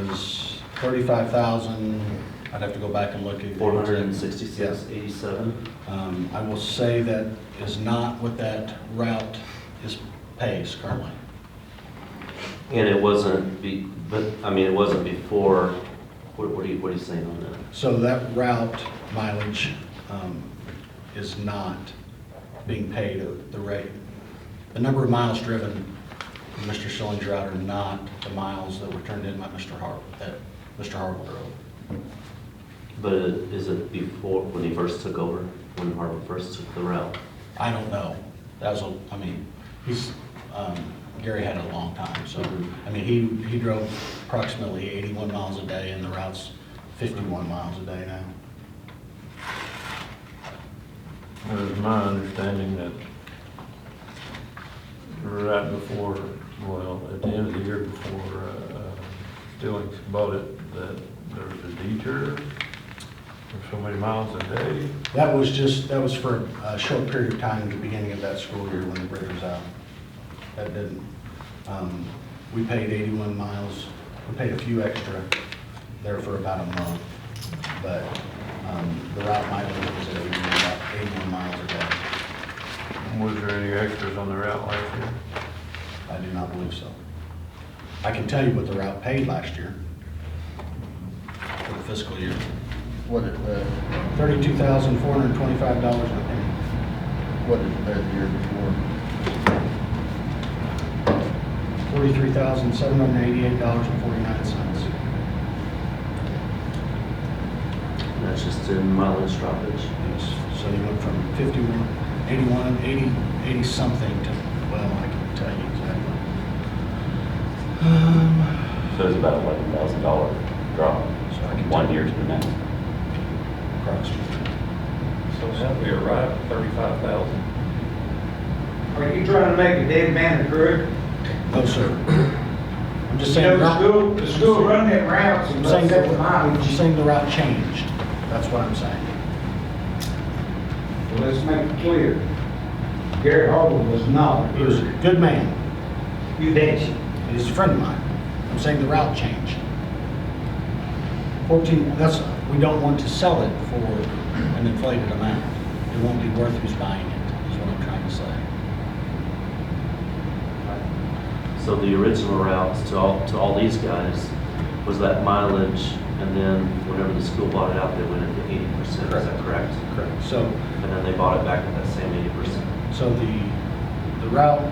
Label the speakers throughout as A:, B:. A: was thirty-five thousand, I'd have to go back and look at.
B: Four hundred and sixty-six, eighty-seven.
A: Um, I will say that is not what that route is pays currently.
B: And it wasn't be, but, I mean, it wasn't before, what, what are you, what are you saying on that?
A: So that route mileage um, is not being paid at the rate. The number of miles driven, in Mr. Schilling's route are not the miles that were turned in by Mr. Har, that Mr. Harville drove.
B: But it- is it before, when he first took over, when Harvard first took the route?
A: I don't know. That was, a I mean, he's, um, Gary had it a long time, so, I mean, he, he drove approximately 81 miles a day, and the route's 51 miles a day now.
C: It was my understanding that right before, well, at the end of the year before uh, Stillings bought it, that there was a detour for so many miles a day.
A: That was just, that was for a short period of time at the beginning of that school year when the bridge was out. That didn't, um, we paid 81 miles, we paid a few extra there for about a month, but um, the route mileage was at 81 about 81 miles a day.
C: Was there any extras on the route last year?
A: I do not believe so. I can tell you what the route paid last year for the fiscal year.
D: What uh, it was,
A: Thirty-two thousand, four hundred and twenty-five dollars and a penny.
D: what it was the year before.
A: Forty-three thousand, seven hundred and eighty-eight dollars and forty-nine cents.
B: And That's just in mileage droppage.
A: Yes, so you went from fifty-one, eighty-one, eighty, eighty-something to, well, I can tell you exactly. Um,
E: So it's about eleven thousand dollar drop,
A: So I can
E: one
A: tell-
E: year to the next.
A: Across.
C: So how we arrived at thirty-five thousand?
F: Are you trying to make a dead man a crook?
A: No, sir. I'm just
F: You
A: saying.
F: know, the school, the school run them routes
A: I'm
F: and
A: saying
F: lets
A: that,
F: them
A: I'm
F: mileage.
A: saying the route changed. That's what I'm saying.
F: Let's make it clear. Gary Harville was not a
A: He was a
F: crook.
A: good man.
F: You bet.
A: He's a friend of mine. I'm saying the route changed. Fourteen, that's, we don't want to sell it for an inflated amount. It won't be worth who's buying it, is what I'm trying to say.
B: So the original routes to all, to all these guys was that mileage, and then whenever the school bought it out, they went into eighty percent, is that correct?
A: Correct. So,
B: And then they bought it back at that same eighty percent.
A: so the, the route,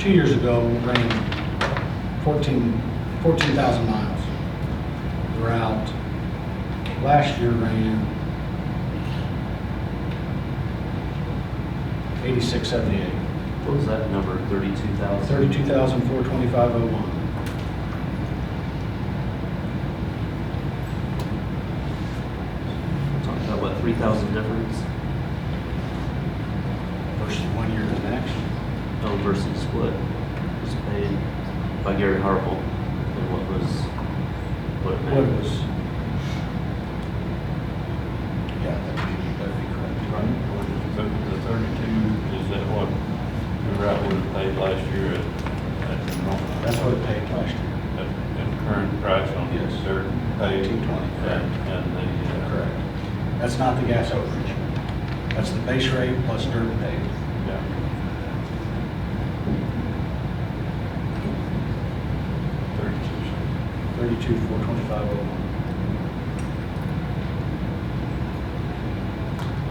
A: two years ago, ran fourteen, fourteen thousand miles. The route last year ran eighty-six seventy-eight.
B: What was that number, thirty-two thousand?
A: Thirty-two thousand four twenty-five oh one.
B: Talking about what, three thousand difference?
A: versus one year to the next.
B: Oh, versus what was paid by Gary Harple, and what was, what it
A: What
B: meant.
A: was? Yeah, that'd be, that'd be correct.
C: The thirty-two, is that what the route would have paid last year at, at the moment?
A: That's what it paid last year.
C: At at current price on the
A: Yes.
C: third page?
A: 220, correct.
C: And and the, uh,
A: Correct. That's not the gas overage. That's the base rate plus dirt paid.
C: yeah. Thirty-two,
A: Thirty-two four twenty-five oh one.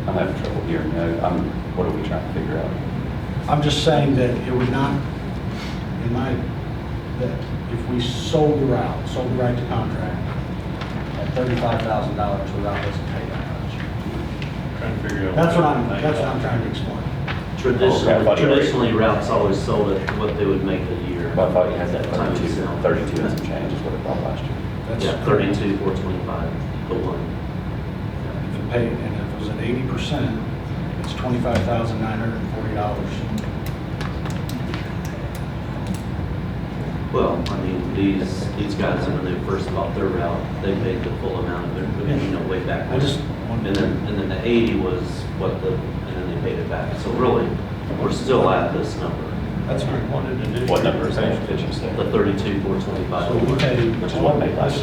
E: I'm having trouble hearing, you. I'm, what are we trying to figure out?
A: I'm just saying that it would not, in my, that if we sold the route, sold the right to contract at thirty-five thousand dollars, the route doesn't pay that much.
C: trying to figure out.
A: That's what I'm,
C: they-
A: that's what I'm trying to explain.
E: Okay, Oh, I
B: Traditionally,
E: thought you were-
B: traditionally routes always sold at what they would make a year.
E: I thought you had that
B: Time of
E: 32
B: sale.
E: 32 and some change is what it bought last year.
A: That's
B: Yeah, thirty-two, four twenty-five, the one.
A: If it paid, and if it was at eighty percent, it's twenty-five thousand nine hundred and forty dollars.
B: Well, I mean, these, these guys, when they first bought their route, they paid the full amount of their, you know, way back.
A: I just
B: And
A: wanted
B: then,
A: to,
B: and then the eighty was what the, and then they paid it back. So really, we're still at this number.
G: That's what we wanted to do.
A: What number is that, did you say?
C: the thirty-two, four twenty-five.
B: So we paid
A: Which is what made last